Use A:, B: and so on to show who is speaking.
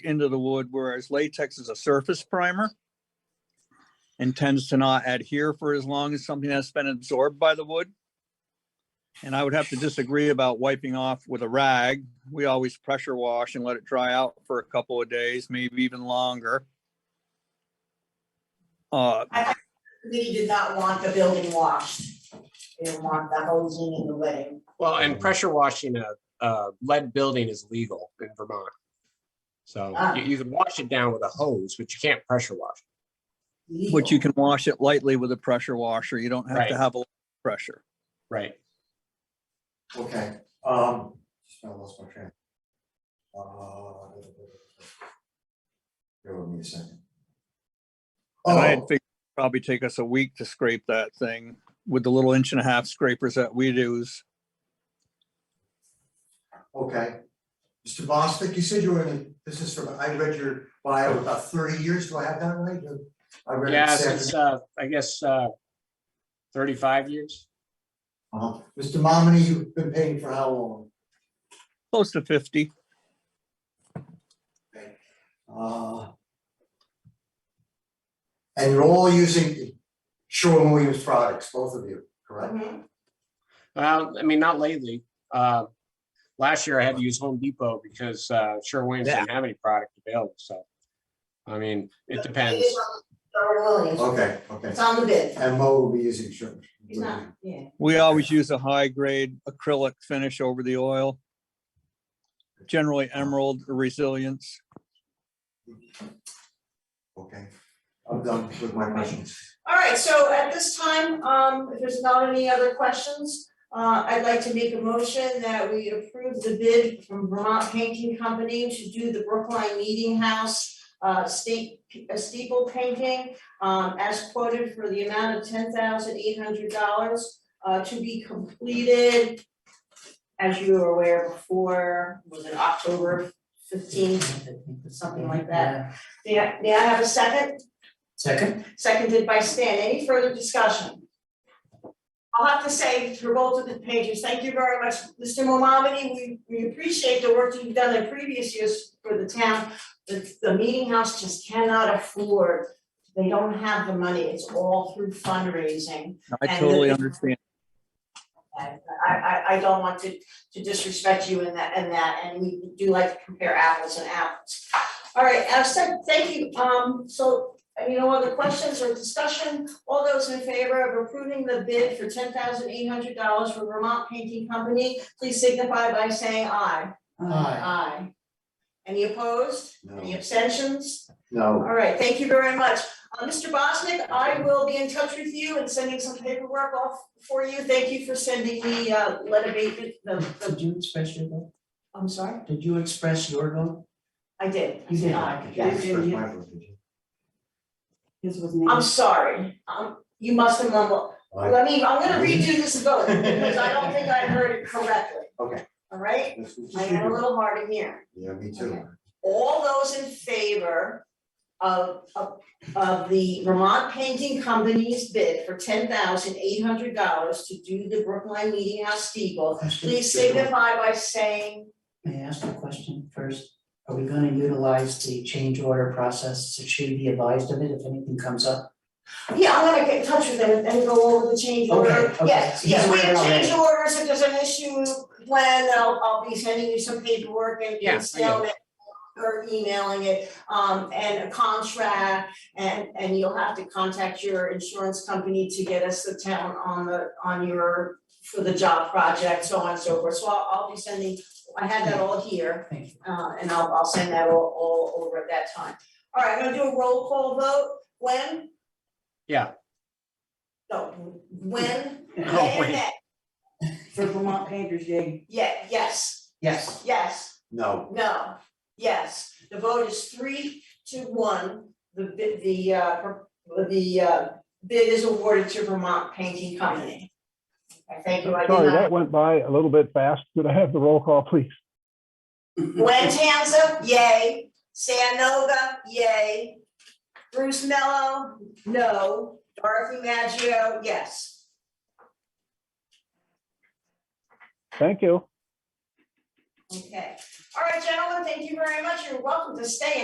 A: into the wood, whereas latex is a surface primer and tends to not adhere for as long as something that's been absorbed by the wood. And I would have to disagree about wiping off with a rag. We always pressure wash and let it dry out for a couple of days, maybe even longer. Uh,
B: Lee did not want the building washed. They didn't want the hosing and the wetting.
C: Well, and pressure washing a, a lead building is legal in Vermont. So
B: Ah.
C: you, you can wash it down with a hose, but you can't pressure wash.
A: but you can wash it lightly with a pressure washer. You don't have to
C: Right.
A: have a lot of pressure.
C: Right.
D: Okay, um, just now lost my train. Uh, Bear with me a second.
A: And I had
D: Oh,
A: figured it'd probably take us a week to scrape that thing with the little inch and a half scrapers that we use.
D: Oh, okay. Mr. Bostic, you said you were in the business for, I read your bio about thirty years. Do I have that right? I read it.
C: Yeah,
D: this
C: since,
D: afternoon.
C: uh, I guess, uh, thirty-five years.
D: Uh-huh. Mr. Momini, you've been paying for how long?
A: Close to fifty.
D: Uh, And you're all using Sherwin Williams products, both of you, correct?
B: Mhm.
C: Well, I mean, not lately. Uh, last year I had to use Home Depot because, uh, Sherwin didn't have any product available, so. I mean, it depends.
B: It is on Sherwin Williams.
D: Okay, okay.
B: It's on the bid.
D: And Mo will be using Sherwin.
B: He's not, yeah.
A: We always use a high grade acrylic finish over the oil. Generally emerald or resilience.
D: Okay, I'm done with my questions.
B: All right, so at this time, um, if there's not any other questions, uh, I'd like to make a motion that we approve the bid from Vermont Painting Company to do the Brookline Meeting House uh, state, uh, steeple painting, um, as quoted for the amount of ten thousand eight hundred dollars, uh, to be completed, as you were aware before, was it October fifteenth, something like that. May I, may I have a second?
E: Second?
B: Seconded by Stan. Any further discussion? I'll have to say for both of the pages, thank you very much, Mr. Momamedy. We, we appreciate the work you've done in previous years for the town. The, the meeting house just cannot afford, they don't have the money. It's all through fundraising.
A: I
B: And
A: totally
B: the-
A: understand.
B: I, I, I don't want to, to disrespect you in that, in that, and we do like to compare apples and apples. All right, I've said, thank you, um, so, uh, you know, other questions or discussion? All those in favor of approving the bid for ten thousand eight hundred dollars for Vermont Painting Company, please signify by saying aye.
E: Uh,
B: Aye. Any opposed? Any
D: No,
B: abstentions?
D: no,
B: All right, thank you very much. Uh, Mr. Bosnick, I will be in touch with you and sending some paperwork off for you. Thank you for sending me, uh, lead abatement, the, the,
E: Did you express your vote?
B: I'm sorry,
E: Did you express your vote?
B: I did. I
E: You did.
B: aye,
D: Did you
B: yes.
D: express my vote, did you?
E: His was
B: I'm sorry, um, you must have mumbled. Let me, I'm gonna redo this vote because I don't think I heard it correctly.
D: Okay.
B: All right,
D: That's what you
B: I
D: should
B: got a
D: do.
B: little hard in here.
D: Yeah, me too.
B: all those in favor of, of, of the Vermont Painting Company's bid for ten thousand eight hundred dollars to do the Brookline Meeting House steeple, please signify by saying,
E: May I ask a question first? Are we gonna utilize the change order process? Should we be advised of it if anything comes up?
B: yeah, I'm gonna get in touch with them and go over the change order.
E: Okay, okay.
B: Yes, yes, we have
E: He's aware already.
B: change orders, if there's an issue, when I'll, I'll be sending you some paperwork and
C: Yeah, I
B: and still it or emailing it, um, and a contract, and, and you'll have to contact your insurance company to get us the town on the, on your, for the job project, so on and so forth, so I'll, I'll be sending, I had that all here.
E: Thank you.
B: Uh, and I'll, I'll send that all, all over at that time. All right, I'm gonna do a roll call vote, when?
C: Yeah.
B: No, when,
E: Oh,
B: Nay or
C: wait.
B: nay?
E: For Vermont painters, yay.
B: Yeah, yes,
E: Yes.
B: yes.
D: No,
B: No, yes, the vote is three to one, the bid, the uh, pro- the uh, bid is awarded to Vermont Painting Company. I thank you, I did
F: Sorry, that
B: not,
F: went by a little bit fast. Could I have the roll call, please?
E: Mm-hmm.
B: Gwen Tanza, yay, San Nova, yay, Bruce Mello, no, Dorothy Maggio, yes.
F: Thank you.
B: Okay, All right, gentlemen, thank you very much. You're welcome to stay